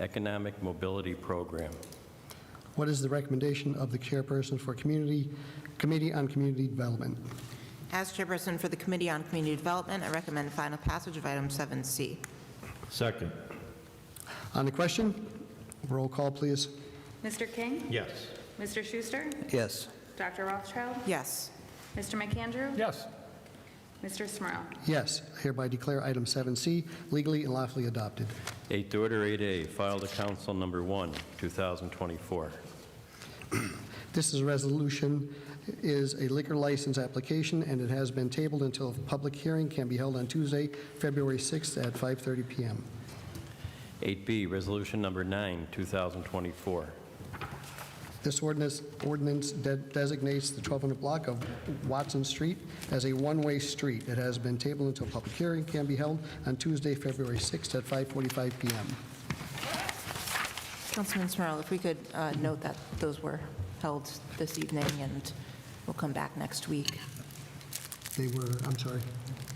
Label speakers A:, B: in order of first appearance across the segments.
A: Economic Mobility Program.
B: What is the recommendation of the chairperson for Community, Committee on Community Development?
C: As chairperson for the Committee on Community Development, I recommend final passage of item 7C.
D: Second.
B: On the question, roll call, please.
E: Mr. King?
D: Yes.
E: Mr. Schuster?
F: yes,
E: Dr. Rothschild?
C: Yes.
E: Mr. McAndrew?
D: Yes.
E: Mr. Smurl?
B: Yes, I hereby declare item 7C legally and lawfully adopted.
A: Eighth Order 8A, filed to Council Number 1, 2024.
B: This is a resolution, is a liquor license application, and it has been tabled until a public hearing can be held on Tuesday, February 6th at 5:30 PM.
A: 8B, Resolution Number 9, 2024.
B: This ordinance ordinance de- designates the 1200 block of Watson Street as a one-way street. It has been tabled until a public hearing can be held on Tuesday, February 6th at 5:45 PM.
C: Councilman Smurl, if we could uh, note that those were held this evening, and we'll come back next week.
B: They were, I'm sorry.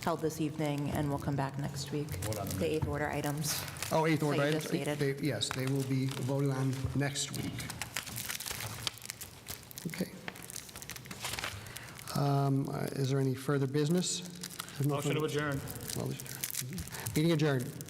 C: Held this evening, and we'll come back next week. The eighth order items.
B: Oh, eighth order.
C: That you
B: item.
C: just stated.
B: They- Yes, they will be voted on next week. Okay. Um, uh, Is there any further business? There's no
G: Motion to
B: further-
G: adjourn.
B: Meeting adjourned.